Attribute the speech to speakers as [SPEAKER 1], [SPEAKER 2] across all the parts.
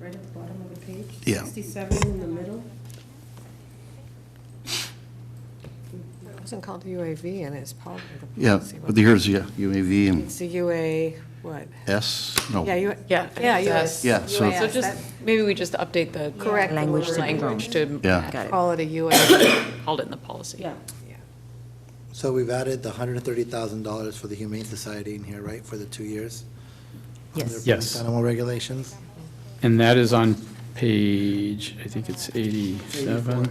[SPEAKER 1] right at the bottom of the page?
[SPEAKER 2] Yeah.
[SPEAKER 1] 67 in the middle?
[SPEAKER 3] It wasn't called UAV, and it's part of the
[SPEAKER 2] Yeah,
[SPEAKER 3] policy.
[SPEAKER 2] but here's, yeah, UAV and
[SPEAKER 3] It's the UA, what?
[SPEAKER 2] S, no.
[SPEAKER 3] Yeah, you,
[SPEAKER 4] Yeah, I
[SPEAKER 3] yeah, US.
[SPEAKER 4] think that's-
[SPEAKER 2] Yeah, so-
[SPEAKER 5] Oh,
[SPEAKER 4] So just, maybe we just update the.
[SPEAKER 3] Correct the
[SPEAKER 4] Language
[SPEAKER 3] word.
[SPEAKER 4] to. Language
[SPEAKER 2] Yeah.
[SPEAKER 4] to
[SPEAKER 3] that- Call it a UA.
[SPEAKER 4] hold it in the policy.
[SPEAKER 1] Yeah.
[SPEAKER 6] So we've added the hundred and thirty thousand dollars for the Humane Society in here, right, for the two years? Yes.
[SPEAKER 7] Yes.
[SPEAKER 6] Animal regulations?
[SPEAKER 7] And that is on page, I think it's 87,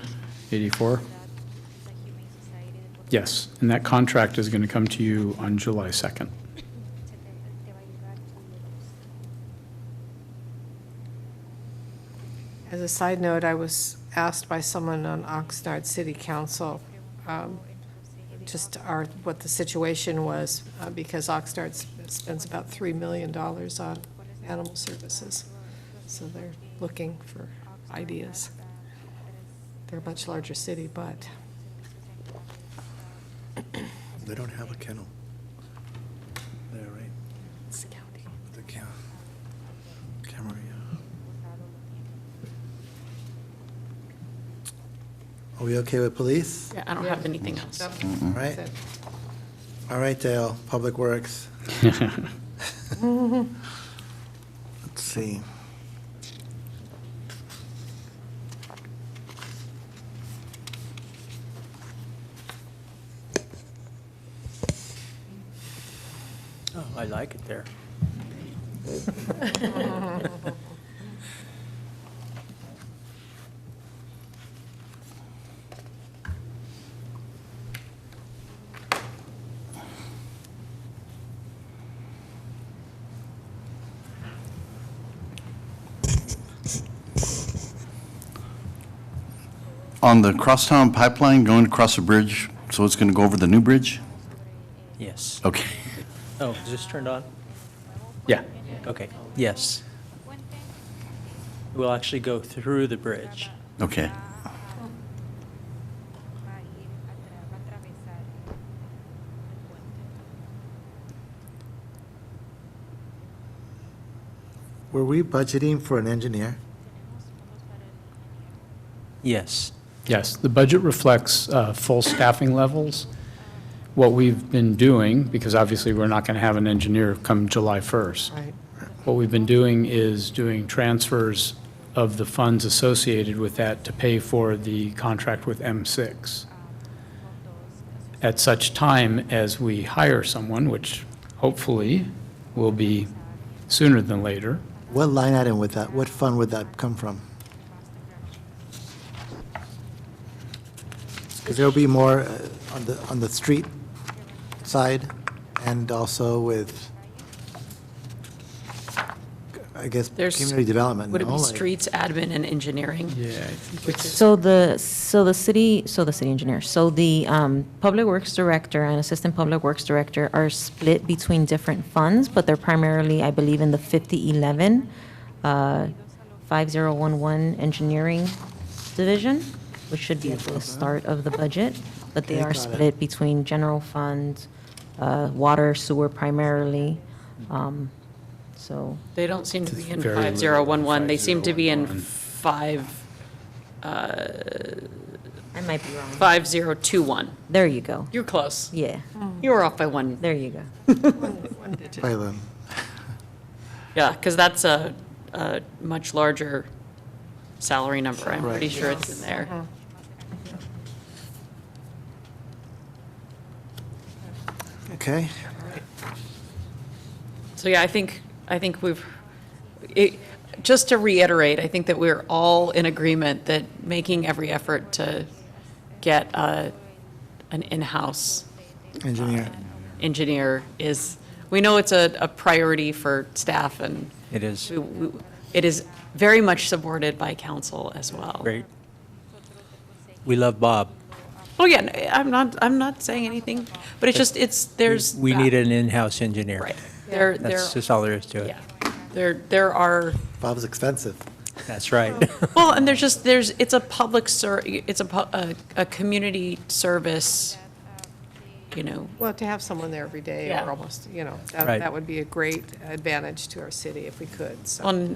[SPEAKER 7] 84? Yes, and that contract is going to come to you on July 2nd.
[SPEAKER 3] As a side note, I was asked by someone on Oxnard City Council, um, just our, what the situation was, uh, because Oxnard sp- spends about $3 million on animal services. So they're looking for ideas. They're a much larger city, but
[SPEAKER 6] They don't have a kennel. There, right?
[SPEAKER 3] it's county.
[SPEAKER 6] The ca- camera, yeah. Are we okay with police?
[SPEAKER 4] Yeah, I don't have anything else.
[SPEAKER 6] All right,
[SPEAKER 3] That's it.
[SPEAKER 6] all right, Dale, Public Works, let's see.
[SPEAKER 8] Oh, I like it there.
[SPEAKER 2] On the crosstown pipeline going across the bridge, so it's going to go over the new bridge?
[SPEAKER 8] Yes.
[SPEAKER 2] Okay.
[SPEAKER 8] Oh, is this turned on?
[SPEAKER 7] Yeah,
[SPEAKER 8] Okay, yes. We'll actually go through the bridge.
[SPEAKER 2] Okay.
[SPEAKER 6] Were we budgeting for an engineer?
[SPEAKER 8] Yes.
[SPEAKER 7] yes, the budget reflects uh, full staffing levels. What we've been doing, because obviously we're not going to have an engineer come July 1st.
[SPEAKER 3] Right.
[SPEAKER 7] What we've been doing is doing transfers of the funds associated with that to pay for the contract with M6. At such time as we hire someone, which hopefully will be sooner than later,
[SPEAKER 6] What line item would that, what fund would that come from? Because there'll be more uh, on the, on the street side and also with, I guess,
[SPEAKER 4] There's-
[SPEAKER 6] community development,
[SPEAKER 4] Would it
[SPEAKER 6] no?
[SPEAKER 4] be
[SPEAKER 6] Like-
[SPEAKER 4] streets, admin, and engineering?
[SPEAKER 7] yeah, I think it's,
[SPEAKER 5] So the, so the city, so the city engineer, so the um, Public Works Director and Assistant Public Works Director are split between different funds, but they're primarily, I believe, in the 5011, uh, 5011 Engineering Division, which should be at the start of the budget, but they
[SPEAKER 6] Okay,
[SPEAKER 5] are
[SPEAKER 6] got it.
[SPEAKER 5] split between general funds, uh, water, sewer primarily, um, so.
[SPEAKER 4] They don't seem to be in
[SPEAKER 7] very little
[SPEAKER 4] 5011, they seem to be in
[SPEAKER 7] 5011.
[SPEAKER 4] 5, uh,
[SPEAKER 5] I might be wrong.
[SPEAKER 4] 5021.
[SPEAKER 5] There you go.
[SPEAKER 4] You're close. Hmm.
[SPEAKER 5] Yeah,
[SPEAKER 4] You were off by one.
[SPEAKER 5] there you go.
[SPEAKER 6] Pylon.
[SPEAKER 4] Yeah, because that's a, a much larger salary number. I'm pretty
[SPEAKER 6] Right.
[SPEAKER 4] sure it's in there.
[SPEAKER 5] Uh-huh.
[SPEAKER 6] Okay,
[SPEAKER 4] So yeah, I think, I think we've, it, just to reiterate, I think that we're all in agreement that making every effort to get a, an in-house
[SPEAKER 6] engineer.
[SPEAKER 4] engineer is, we know it's a, a priority for staff and
[SPEAKER 8] It is.
[SPEAKER 4] we- we- it is very much supported by council as well.
[SPEAKER 8] Great. We love Bob.
[SPEAKER 4] Oh yeah, no, I'm not, I'm not saying anything, but it's just, it's, there's.
[SPEAKER 8] We need an in-house engineer.
[SPEAKER 4] Right. There, there,
[SPEAKER 8] That's just all there is to it.
[SPEAKER 4] yeah. There, there are.
[SPEAKER 6] Bob's expensive.
[SPEAKER 8] That's
[SPEAKER 4] Oh.
[SPEAKER 8] right.
[SPEAKER 4] Well, and there's just, there's, it's a public ser, it's a, pu- a, a community service, you know,
[SPEAKER 3] Well, to have someone there every day
[SPEAKER 4] Yeah.
[SPEAKER 3] or almost, you know, that,
[SPEAKER 8] Right.
[SPEAKER 3] that would be a great advantage to our city if we could, so.
[SPEAKER 4] on,